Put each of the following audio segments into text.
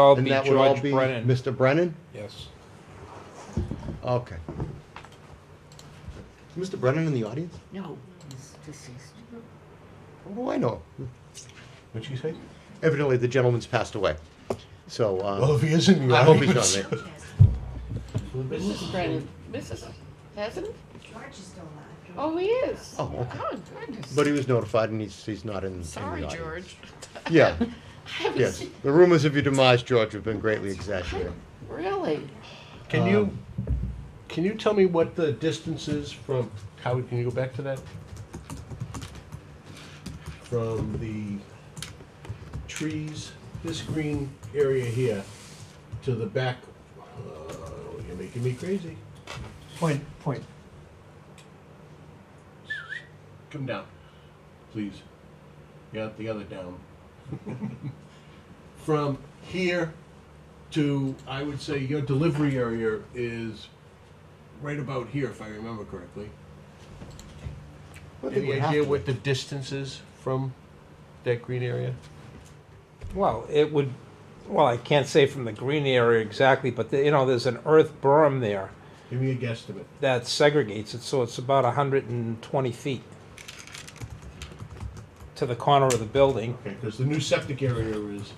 all And be that would all George be Brennan. Mr. Brennan? Yes. Okay. Is Mr. Brennan in the audience? No, he's deceased. What do I know? What'd she say? Evidently, the gentleman's passed away. So, Well, uh, Oh, if he is in the I hope he's not audience. there. Mrs. Brennan, Mrs. Hasn't? George is still alive. Oh, he is. Oh, okay. Oh, goodness. but he was notified and he's, he's not in, in the Sorry, audience. George. Yeah, I was- yes. The rumors of your demise, George, have been greatly exaggerated. Really? Can you, can you tell me what the distance is from, Howard, can you go back to that? From the trees, this green area here, to the back, uh, you're making me crazy. Point, point. Come down, please. Yeah, the other down. From here to, I would say your delivery area is right about here, if I remember correctly. Well, they Any would have idea to what the distance is from that green area? Well, it would, well, I can't say from the green area exactly, but, the- you know, there's an earth berm there Give me a guesstimate. that segregates it, so it's about hundred and twenty feet to the corner of the building. Okay, because the new septic area is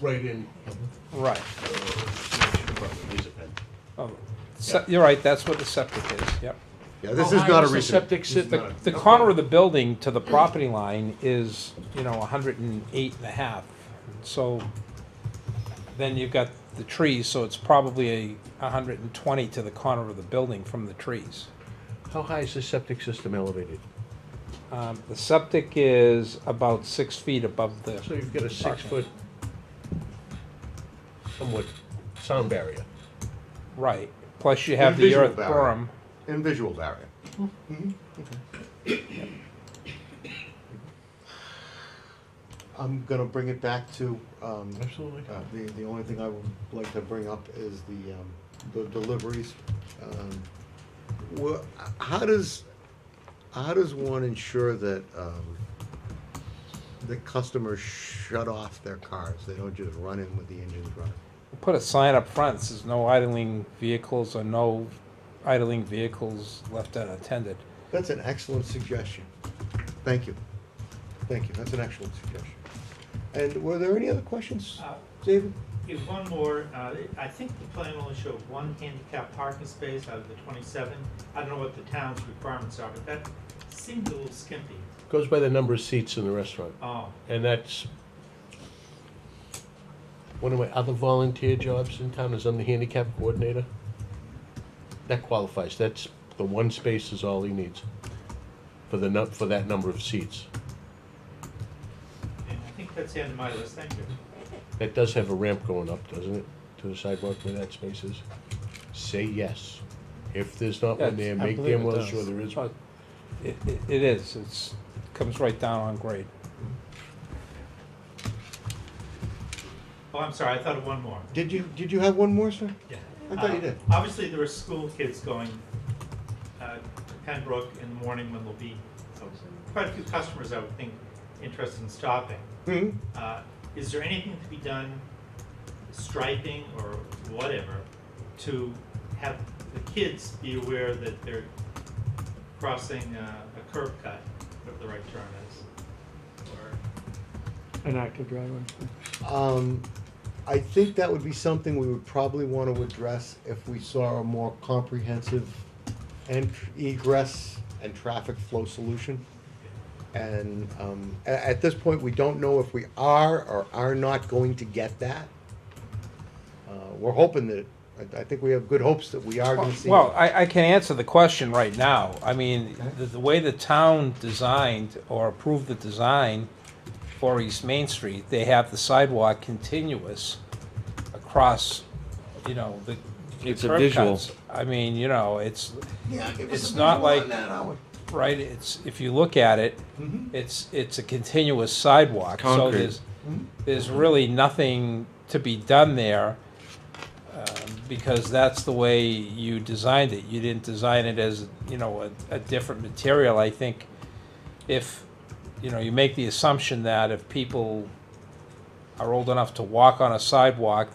right in. Right. uh, probably is it then? Oh, se- You're right, that's what the septic is, yep. be. Yeah, this How is high not a the recent. Septic sit, The, the corner of the building to the property line is, you know, a hundred and eight and a half. So then you've got the trees, so it's probably a hundred and twenty to the corner of the building from the trees. how high is the septic system elevated? Um, the septic is about six feet above So the, you've got a six-foot somewhat sound barrier. right, plus you have the Visual earth barrier. berm. And visual barrier. Mm-hmm. I'm gonna bring it back to, um, Absolutely. Uh, The, the only thing I would like to bring up is the, um, the deliveries. Um, wha- how does, how does one ensure that, um, the customers shut off their cars? They don't just run in with the engines running? Put a sign up front, that says no idling vehicles or no idling vehicles left unattended. That's an excellent suggestion. Thank you. Thank you. That's an excellent suggestion. And were there any other questions, Uh, David? Is one more, uh, I think the plan only showed one handicap parking space out of the twenty-seven. I don't know what the town's requirements are, but that seemed a little skimpy. Goes by the number of seats in the restaurant, Oh, and that's one of my other volunteer jobs in town is I'm the handicap coordinator. That qualifies, that's, the one space is all he needs for the, nu- for that number of seats. and I think that's the end of my list, thank you. That does have a ramp going up, doesn't it, to the sidewalk where that space is? Say yes. If there's not one Yes, there, I make believe damn it well does. Uh, sure there is one. It, it- it is, it's, comes right down on grade. Oh, I'm sorry, I thought of one more. Did you, did you have one more, sir? Yeah. I thought you Uh, did. Obviously, there are school kids going uh, to Pembroke in the morning when there'll be uh, quite a few customers, I would think, interested in stopping. Hmm? Uh, Is there anything to be done, striping or whatever, to have the kids be aware that they're crossing uh, a curb cut, whatever the right term is? Or, An active driveway. Um, I think that would be something we would probably want to address if we saw a more comprehensive ent- egress and traffic flow solution. And, um, a- at this point, we don't know if we are or are not going to get that. Uh, we're hoping that, I, I think we have good hopes that we are gonna see. Well, I, I can answer the question right now. I mean, the, the way the town designed or approved the design for East Main Street, they have the sidewalk continuous across, you know, the. the It's a curb visual. cuts. I mean, you know, it's, it's not like, right, it's, if you look at it, it's, it's a continuous sidewalk. So Concrete. there's, there's really nothing to be done there um, because that's the way you designed it. You didn't design it as, you know, a, a different material. I think if, you know, you make the assumption that if people are old enough to walk on a sidewalk